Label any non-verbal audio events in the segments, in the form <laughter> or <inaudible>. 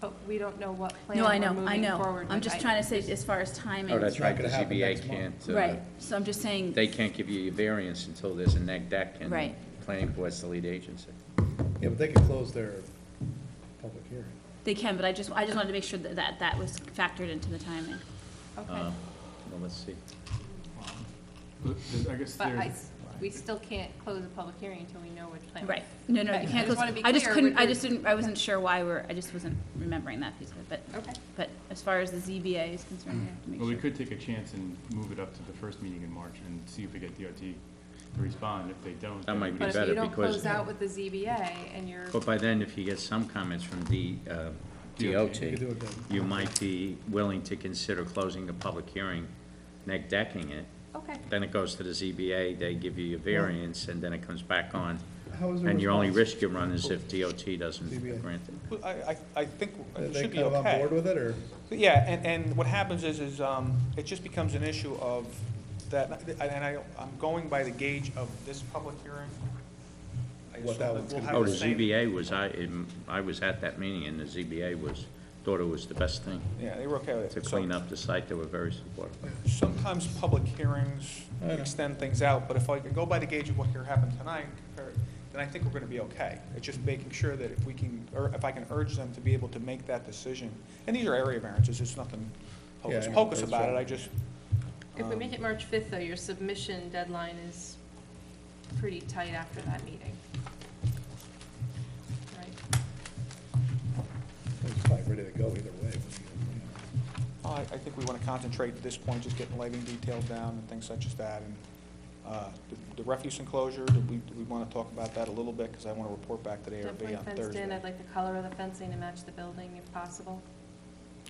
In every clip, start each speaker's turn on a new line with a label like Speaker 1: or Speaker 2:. Speaker 1: but we don't know what plan
Speaker 2: No, I
Speaker 1: we're
Speaker 2: know, I
Speaker 1: moving
Speaker 2: know.
Speaker 1: forward
Speaker 2: I'm
Speaker 1: with.
Speaker 2: just
Speaker 1: I-
Speaker 2: trying to say, as far as timing.
Speaker 3: Oh, that's right,
Speaker 4: It's
Speaker 3: because
Speaker 4: not gonna
Speaker 3: ZBA
Speaker 4: happen next month.
Speaker 3: can't, uh,
Speaker 2: Right, so I'm just saying,
Speaker 3: they can't give you a variance until there's a neg deck and the
Speaker 2: Right.
Speaker 3: planning board's the lead agency.
Speaker 4: Yeah, but they could close their public hearing.
Speaker 2: they can, but I just, I just wanted to make sure that that, that was factored into the timing.
Speaker 1: Okay,
Speaker 3: Um, Well, let's see.
Speaker 5: But there's- I guess
Speaker 1: but I,
Speaker 5: there's,
Speaker 1: s- we still can't close a public hearing until we know which plan. we're-
Speaker 2: Right, no, no,
Speaker 1: Okay,
Speaker 2: you
Speaker 1: I just
Speaker 2: can't close.
Speaker 1: wanna be
Speaker 2: I just
Speaker 1: clear
Speaker 2: couldn't,
Speaker 1: with
Speaker 2: I
Speaker 1: your-
Speaker 2: just didn't, I wasn't sure why we're, I just wasn't remembering that piece of it, but,
Speaker 1: Okay,
Speaker 2: but as far as the ZBA is concerned, we have to make
Speaker 5: Mm. well, we
Speaker 2: sure.
Speaker 5: could take a chance and move it up to the first meeting in March and see if we get DOT to respond. If they don't.
Speaker 3: That
Speaker 5: then
Speaker 3: might be
Speaker 5: we
Speaker 1: but
Speaker 5: would-
Speaker 1: if you
Speaker 3: better
Speaker 1: don't
Speaker 3: because-
Speaker 1: close out with the ZBA and you're,
Speaker 3: But by then, if you get some comments from the uh, DOT,
Speaker 4: You could do it then.
Speaker 3: you might be willing to consider closing the public hearing, neg decking it.
Speaker 1: okay,
Speaker 3: Then it goes to the ZBA, they give you your variance, and then it comes back on.
Speaker 4: How is the
Speaker 3: And your only
Speaker 4: response? Oh.
Speaker 3: risk you run is if DOT doesn't
Speaker 4: ZBA.
Speaker 3: grant it.
Speaker 6: Well, I, I, I think
Speaker 4: Are
Speaker 6: it
Speaker 4: they
Speaker 6: should be
Speaker 4: kind of on
Speaker 6: okay.
Speaker 4: board with it, or?
Speaker 6: But Yeah, and, and what happens is, is, um, it just becomes an issue of that, and I, I'm going by the gauge of this public hearing. I
Speaker 4: What that
Speaker 6: assume that
Speaker 4: one's
Speaker 6: we'll
Speaker 4: gonna
Speaker 6: have
Speaker 3: Oh, the
Speaker 6: same-
Speaker 3: ZBA was, I, in- I was at that meeting, and the ZBA was, thought it was the best thing
Speaker 6: Yeah, they were okay with
Speaker 3: to
Speaker 6: it.
Speaker 3: clean
Speaker 6: So
Speaker 3: up the site, they were very supportive.
Speaker 6: sometimes public hearings
Speaker 4: I know.
Speaker 6: extend things out, but if I can go by the gauge of what here happened tonight, or- then I think we're gonna be okay. It's just making sure that if we can, or if I can urge them to be able to make that decision. And these are area variances, it's nothing
Speaker 4: Yeah,
Speaker 6: hocus
Speaker 4: I know,
Speaker 6: pocus
Speaker 4: that's
Speaker 6: about it,
Speaker 4: right.
Speaker 6: I just,
Speaker 1: if we
Speaker 6: Um,
Speaker 1: make it March fifth, though, your submission deadline is pretty tight after that meeting. Right,
Speaker 4: It's probably ready to go either way.
Speaker 6: Oh, I, I think we want to concentrate at this point, just getting lighting details down and things such as that. And uh, the- The refuse enclosure, do we, do we want to talk about that a little bit? Because I want to report back to the
Speaker 1: definitely
Speaker 6: ARB on
Speaker 1: fenced in,
Speaker 6: Thursday.
Speaker 1: I'd like the color of the fencing to match the building if possible.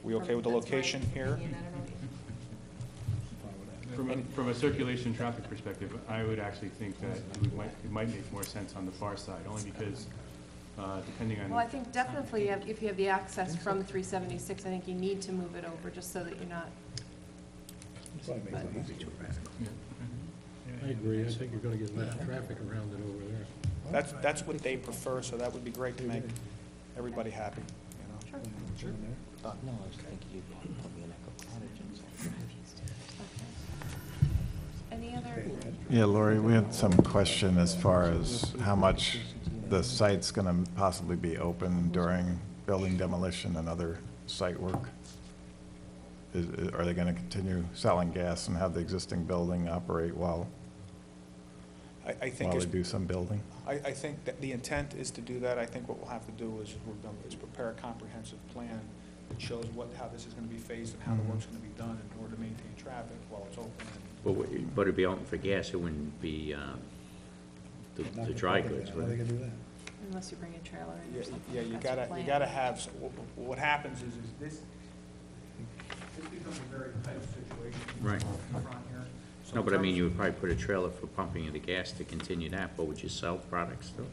Speaker 6: We okay with the
Speaker 1: That's my
Speaker 6: location here?
Speaker 1: opinion. I don't know what you-
Speaker 5: From, a- from a circulation traffic perspective, I would actually think that it might, it might make more sense on the far side, only because, uh, depending on.
Speaker 1: Well, I think definitely you have- if you have the access from three seventy-six, I think you need to move it over just so that you're not,
Speaker 4: Probably makes it easier.
Speaker 5: Yeah.
Speaker 7: I agree, I think you're gonna get less traffic around it over there.
Speaker 6: That's, that's what they prefer, so that would be great to make everybody happy, you know?
Speaker 4: Sure.
Speaker 6: Done.
Speaker 8: No, I was thinking you'd put me in a cottage and
Speaker 1: any other,
Speaker 9: Yeah, Lori, we had some question as far as how much the site's going to possibly be open during building demolition and other site work. Is, is- are they going to continue selling gas and have the existing building operate while,
Speaker 6: I, I think,
Speaker 9: while
Speaker 6: is-
Speaker 9: they do some building?
Speaker 6: I, I think that the intent is to do that. I think what we'll have to do is, we're gonna, is prepare a comprehensive plan that shows what, how this is gonna be phased and how
Speaker 9: Mm-hmm.
Speaker 6: the work's gonna be done in order to maintain traffic while it's open and
Speaker 3: But we- but it'd be open for gas, it wouldn't be uh, the the dry goods,
Speaker 4: How
Speaker 3: would
Speaker 4: they
Speaker 3: it?
Speaker 4: gonna do that?
Speaker 1: unless you bring a trailer in
Speaker 6: Yeah,
Speaker 1: or something.
Speaker 6: yeah, you
Speaker 1: that's your
Speaker 6: gotta, you
Speaker 1: plan.
Speaker 6: gotta have, s- wh- wh- what happens is, is this, this becomes a very tight situation.
Speaker 3: Right.
Speaker 6: in front here. So
Speaker 3: No, but I
Speaker 6: in
Speaker 3: mean,
Speaker 6: terms-
Speaker 3: you would probably put a trailer for pumping of the gas to continue that, but would you sell products still?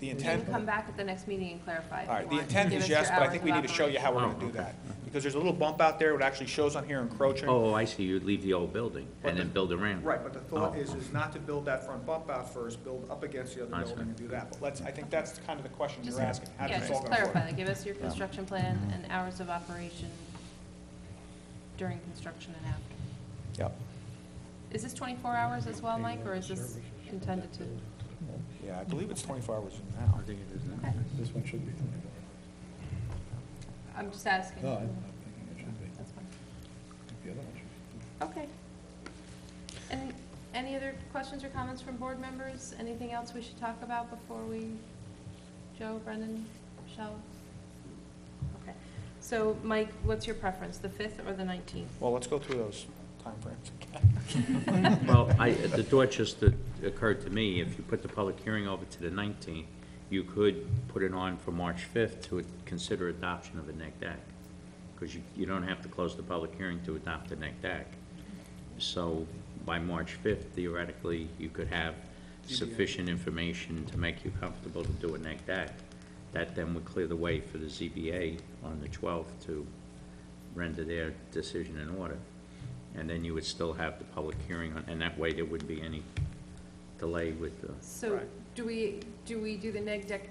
Speaker 6: The
Speaker 1: And
Speaker 6: intent, all
Speaker 1: come back at the next meeting and clarify if you
Speaker 6: right, the
Speaker 1: want.
Speaker 6: intent
Speaker 1: Give
Speaker 6: is
Speaker 1: us your
Speaker 6: yes, but I
Speaker 1: hours
Speaker 6: think
Speaker 1: of
Speaker 6: we need to show you how we're
Speaker 3: operation.
Speaker 6: gonna do
Speaker 3: Oh, okay.
Speaker 6: that. Because there's a little bump out there, it actually shows on here encroaching.
Speaker 3: Oh, I see, you'd leave the old building and then build around.
Speaker 6: Right, but the thought
Speaker 3: Oh.
Speaker 6: is, is not to build that front bump out first, build up against the other
Speaker 3: That's
Speaker 6: building and do that. But let's, I think that's kind of the question
Speaker 1: Just-
Speaker 6: you're asking, how
Speaker 1: Yeah,
Speaker 6: does this all
Speaker 1: just
Speaker 6: gonna work?
Speaker 1: clarify, that. give us your construction plan and hours of operation during construction and after.
Speaker 6: Yep,
Speaker 1: Is this twenty-four hours as well, Mike, or is this
Speaker 7: Services for
Speaker 1: intended to?
Speaker 6: yeah, I believe it's twenty-four hours from now. I think it is
Speaker 1: Okay,
Speaker 4: This one should be.
Speaker 1: I'm just asking.
Speaker 4: No, I'm I'm thinking it should be.
Speaker 1: That's fine.
Speaker 4: I think the other one should be.
Speaker 1: Okay. And any other questions or comments from board members? Anything else we should talk about before we, Joe, Brendan, Michelle? Okay. So, Mike, what's your preference, the 5th or the 19th?
Speaker 6: Well, <laughs> let's go through those timeframes.
Speaker 3: <laughs> Well, I, the thought just that occurred to me, if you put the public hearing over to the 19th, you could put it on for March 5th to consider adoption of E a neg deck, because you, you don't have to close the public hearing to adopt a neg deck. So by March 5th, theoretically, you could have sufficient information to make you comfortable to do a neg deck. That then would clear the way for the ZBA on the 12th to render their decision in order. And then you would still have the public hearing, on- and that way there wouldn't be any delay with the
Speaker 1: So, do we, do we do the neg deck